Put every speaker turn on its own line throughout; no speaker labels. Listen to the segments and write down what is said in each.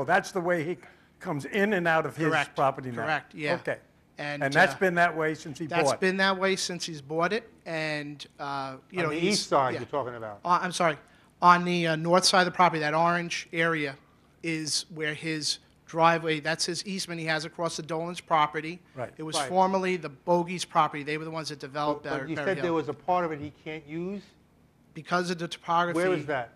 Oh, that's the way he comes in and out of his
Correct,
property now?
correct, yeah.
Okay.
And,
And that's
uh,
been that way since he bought?
That's been that way since he's bought it, and, uh, you know.
On the
he's-
east side
yeah.
you're talking about?
Uh, I'm sorry, on the uh, north side of the property, that orange area is where his driveway, that's his easement he has across the Dolan's property.
Right.
It was
Right.
formerly the Bogies property, they were the ones that developed Ber-
But you
Berry
said there
Oh, Hill.
was a part of it he can't use?
Because of the topography.
Where is that?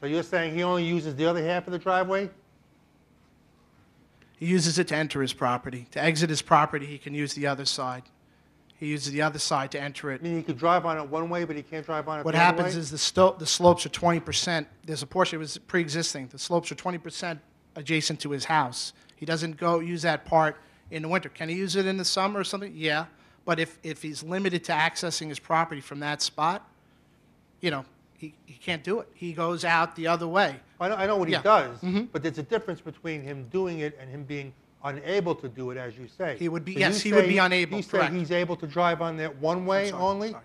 So you're saying he only uses the other half of the driveway?
He uses it to enter his property. To exit his property, he can use the other side. He uses the other side to enter it.
I mean, he could drive on it one way, but he can't drive on it the
What
other way?
happens is the sto, the slopes are twenty percent, there's a portion that was pre-existing, the slopes are twenty percent adjacent to his house. He doesn't go use that part in the winter. Can he use it in the summer or something? Yeah, but if, if he's limited to accessing his property from that spot, you know, he, he can't do it. He goes out the other way.
I know, I know what he
Yeah. Mm-hmm.
does, but there's a difference between him doing it and him being unable to do it, as you say.
He would be-
So
yes,
you
he would
say-
be unable,
You say
correct.
he's able to drive on that one way
sorry,
only?
sorry.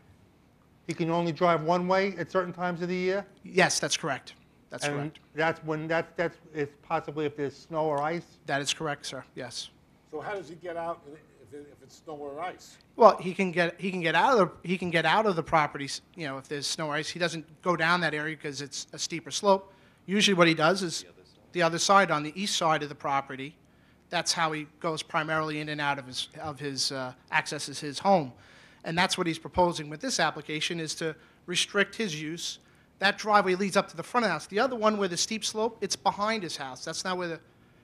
He can only drive one way at certain times of the year?
Yes, that's correct. That's
And
correct.
that's when, that's, that's, it's possibly if there's snow or ice?
That is correct, sir, yes.
So how does he get out if it- if it's snow or ice?
Well, he can get he can get out of the he can get out of the property. s- You know, if there's snow or ice, he doesn't go down that area because it's a steeper slope. Usually, what he does is the other, side on the east side of the property. That's how he goes primarily in and out of his of his uh, accesses his home, and that's what he's proposing with this application is to restrict his use. That driveway leads up to the front of the house. The other one where the steep slope, it's behind his house. That's not where the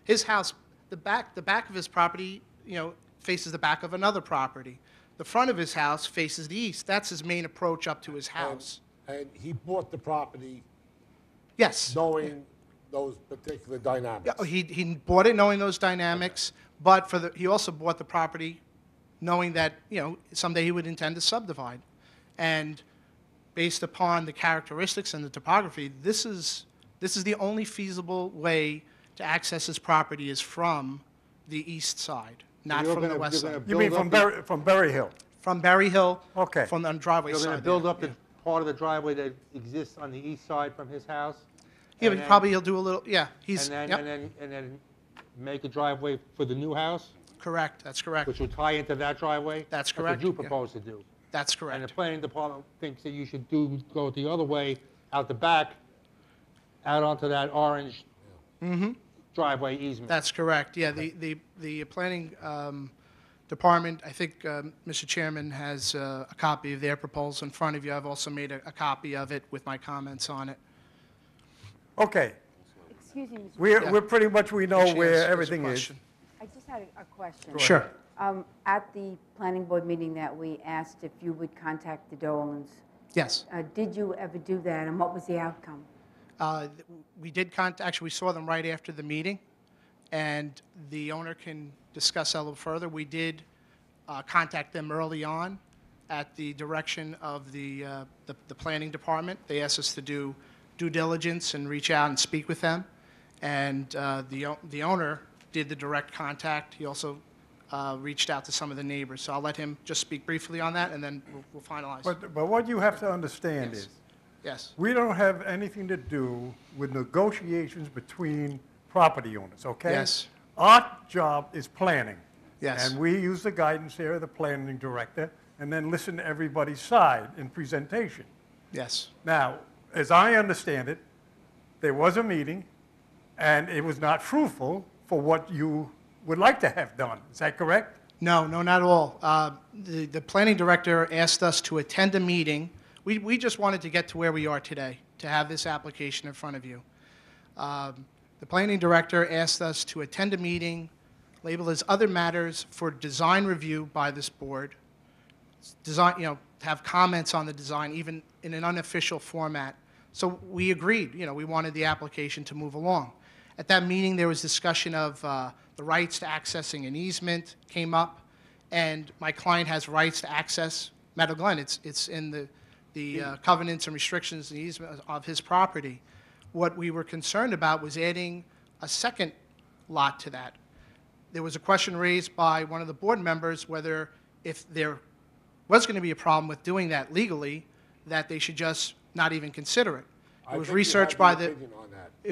his house, the back, the back of his property, you know, faces the back of another property. The front of his house faces the east. That's his main approach up to his
Um,
house.
And he bought the property
Yes.
knowing those particular dynamics.
Yeah, He, he bought it knowing those dynamics, but for the, he also bought the property knowing that, you know, someday he would intend to subdivide. And based upon the characteristics and the topography, this is, this is the only feasible way to access his property is from the east side, not
you're
from the
gonna-
west
you're gonna
side.
You mean
build
from
up the-
Berry, from Berry Hill?
From Berry Hill.
Okay.
From the driveway
You're
side.
going to
there.
build up the part of the driveway that exists on the east side from his house?
Yeah,
and
but
then-
probably he'll do a little, yeah,
And
he's,
then,
yep,
and then, and then make a driveway for the new house,
correct, that's correct,
which will tie into that driveway?
That's correct,
That's what you
yeah.
propose to do.
that's
And the
correct.
planning department thinks that you should do, go the other way, out the back, out onto that orange
Mm-hmm.
driveway easement.
That's correct, yeah, the, the, the planning um, department, I think, um, Mr. Chairman, has uh, a copy of their proposal in front of you. I've also made a, a copy of it with my comments on it.
Okay.
Excuse me, Mr.
We're,
Yeah.
we're pretty much, we know
She has-
Oh, where
has a
everything is.
question.
I just had a- a question.
Sure,
Um, At the planning board meeting that we asked if you would contact the Dolans,
yes.
uh, did you ever do that, and what was the outcome?
Uh, th- We did contact, actually, we saw them right after the meeting, and the owner can discuss that a little further. We did uh, contact them early on at the direction of the, uh, the the planning department. They asked us to do due diligence and reach out and speak with them, and uh, the o- the owner did the direct contact. He also uh, reached out to some of the neighbors, so I'll let him just speak briefly on that, and then we'll- we'll finalize.
But, but what you have to understand is,
Yes,
we don't have anything to do with negotiations between property owners, okay?
Yes.
Our job is planning.
Yes.
And we use the guidance here of the planning director, and then listen to everybody's side in presentation.
yes,
Now, as I understand it, there was a meeting, and it was not fruitful for what you would like to have done. Is that correct?
No, no, not at all. Uh, The, the planning director asked us to attend a meeting. We, we just wanted to get to where we are today, to have this application in front of you. Um, The planning director asked us to attend a meeting labeled as other matters for design review by this board, design, you know, have comments on the design, even in an unofficial format. So we agreed, you know, we wanted the application to move along. At that meeting, there was discussion of uh, the rights to accessing an easement came up, and my client has rights to access Meadow Glen. It's, it's in the, the uh, covenants and restrictions and easement of his property. What we were concerned about was adding a second lot to that. There was a question raised by one of the board members whether if there was going to be a problem with doing that legally, that they should just not even consider it.
I
It was
think you have
researched
an
by the,
opinion on that.